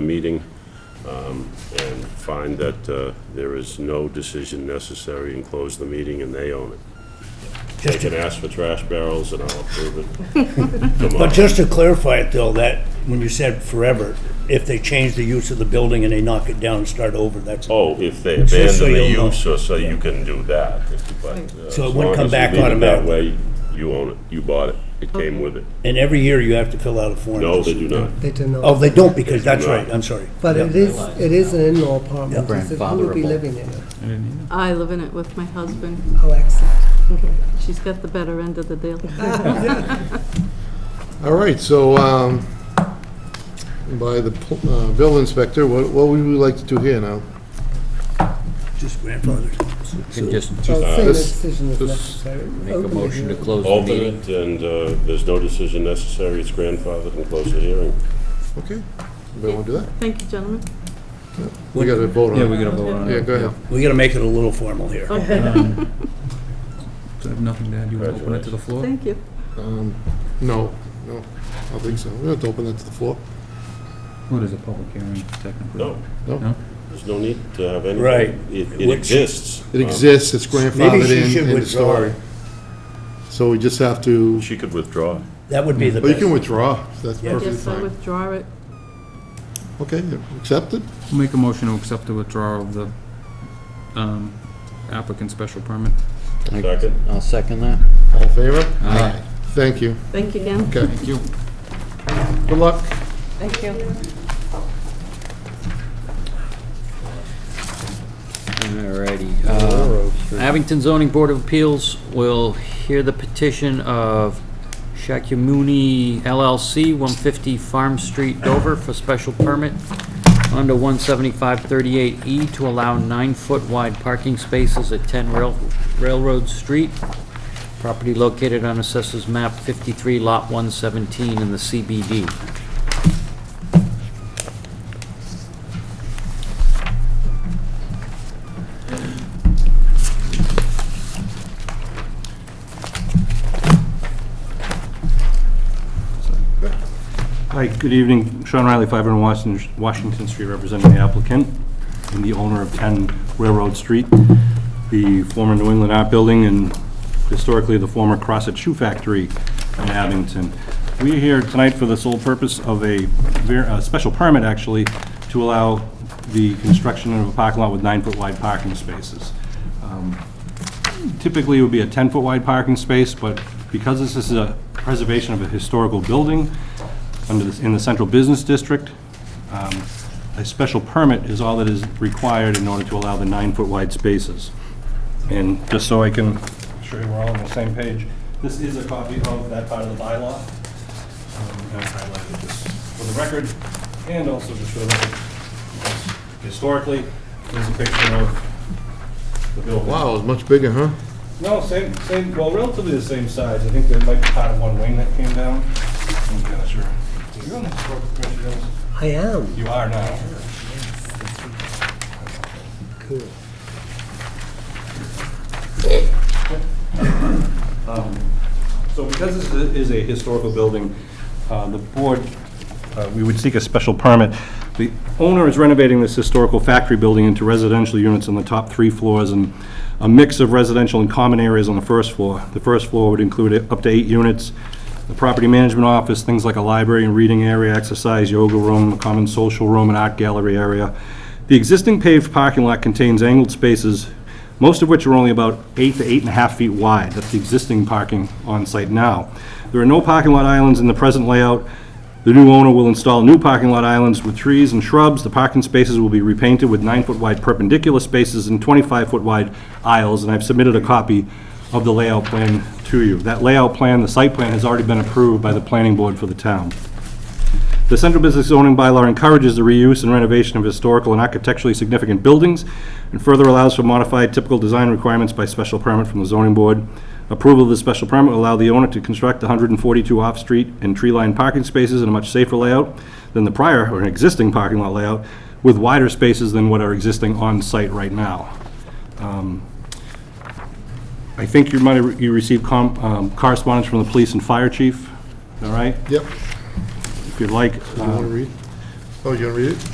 the meeting um, and find that uh, there is no decision necessary and close the meeting, and they own it. They can ask for trash barrels, and I'll approve it. Come But on. just to clarify it though, that, when you said forever, if they change the use of the building and they knock it down and start over, that's, Oh, if they so abandon the you'll know. use, or so you can do that. but, uh, as wouldn't long come as you back leave it That automatically. way, you own it, you bought it, it came with it. and every year you have to fill out a form. No, they do not. They do Oh, not. they don't, because They do that's not. right, I'm sorry. But Yeah. it is, it is an in-law apartment. Yeah. It's a- Who would be living Grandfatherable. in it? I live in it with my husband. Oh, excellent. She's got the better end of the deal. All right, so, um, by the pl- uh, bill inspector, what what would we like to do here now? Just grandfathers. Can just Well, same this- decision is this- necessary. make a Open the motion to hearing. close the Open meeting. it, and uh, there's no decision necessary, it's grandfathered, and close the hearing. Okay, anybody want to do that? Thank you, gentlemen. We got to vote on it. Yeah, we gotta vote on it. Yeah, go ahead. We gotta make it a little formal here. I have nothing to add, you wanna open it to the floor? Thank you. Um, No, no, I don't think so. We don't have to open it to the floor. What is a public hearing technically? No, No? there's no need to have any. Right. It it Which- exists. It Um, exists, it's Maybe grandfathered she in, should end of withdraw. story. it. So we just have to, She could withdraw. That would be the well, you best. can withdraw, that's Yeah. perfectly Yes, I fine. withdraw it. Okay, accepted? Make a motion to accept the withdrawal of the um, applicant's special permit. Second? I'll second that. All in favor? Aye. Thank you. Thank you again. Okay, Thank you. good luck. Thank you. Alrighty. uh, Abington Zoning Board of Appeals will hear the petition of Shakyamuni LLC, 150 Farm Street, Dover, for special permit under 17538E E to allow nine-foot wide parking spaces at 10 Rail- Railroad Street. Property located on Assessors Map 53, Lot 117 in the CBD. Hi, good evening. Sean Riley, 500 Washington Washington Street, representing the applicant and the owner of 10 Railroad Street, the former New England Art Building and historically the former Crosset Shoe Factory in Abington. We are here tonight for the sole purpose of a ver- a special permit, actually, to allow the construction of a parking lot with nine-foot wide parking spaces typically it would be a 10-foot wide parking space, but because this is a preservation of a historical building under, this- in the central business district, um, a special permit is all that is required in order to allow the nine-foot wide spaces. And just so I can show you we're all on the same page, this is a copy of that part of the bylaw. Um, I've highlighted this for the record, and also to show that historically, there's a picture of the building. Wow, it's much bigger, huh? No, same, same, well, relatively the same size. I think there might be part of one wing that came down. I'm not sure. Are you on the historical commission, Dennis? I am. You are now. Cool. So because this is a- is a historical building, uh, the board, uh, we would seek a special permit. The owner is renovating this historical factory building into residential units on the top three floors and a mix of residential and common areas on the first floor. The first floor would include up to eight units, the property management office, things like a library and reading area, exercise, yoga room, a common social room, and art gallery area. The existing paved parking lot contains angled spaces most of which are only about eight to eight and a half feet wide. That's the existing parking on-site now. There are no parking lot islands in the present layout. The new owner will install new parking lot islands with trees and shrubs. The parking spaces will be repainted with nine-foot wide perpendicular spaces and 25-foot wide aisles, and I've submitted a copy of the layout plan to you. That layout plan, the site plan, has already been approved by the planning board for the town. The central business zoning bylaw encourages the reuse and renovation of historical and architecturally significant buildings, and further allows for modified typical design requirements by special permit from the zoning board. Approval of the special permit will allow the owner to construct 142 off-street and tree-lined parking spaces in a much safer layout than the prior or an existing parking lot layout, with wider spaces than what are existing on-site right now. Um, I think you might have, you received com- um, correspondence from the police and fire chief, all right? Yep, If you'd like. you um, want to read? Oh, you going to read it?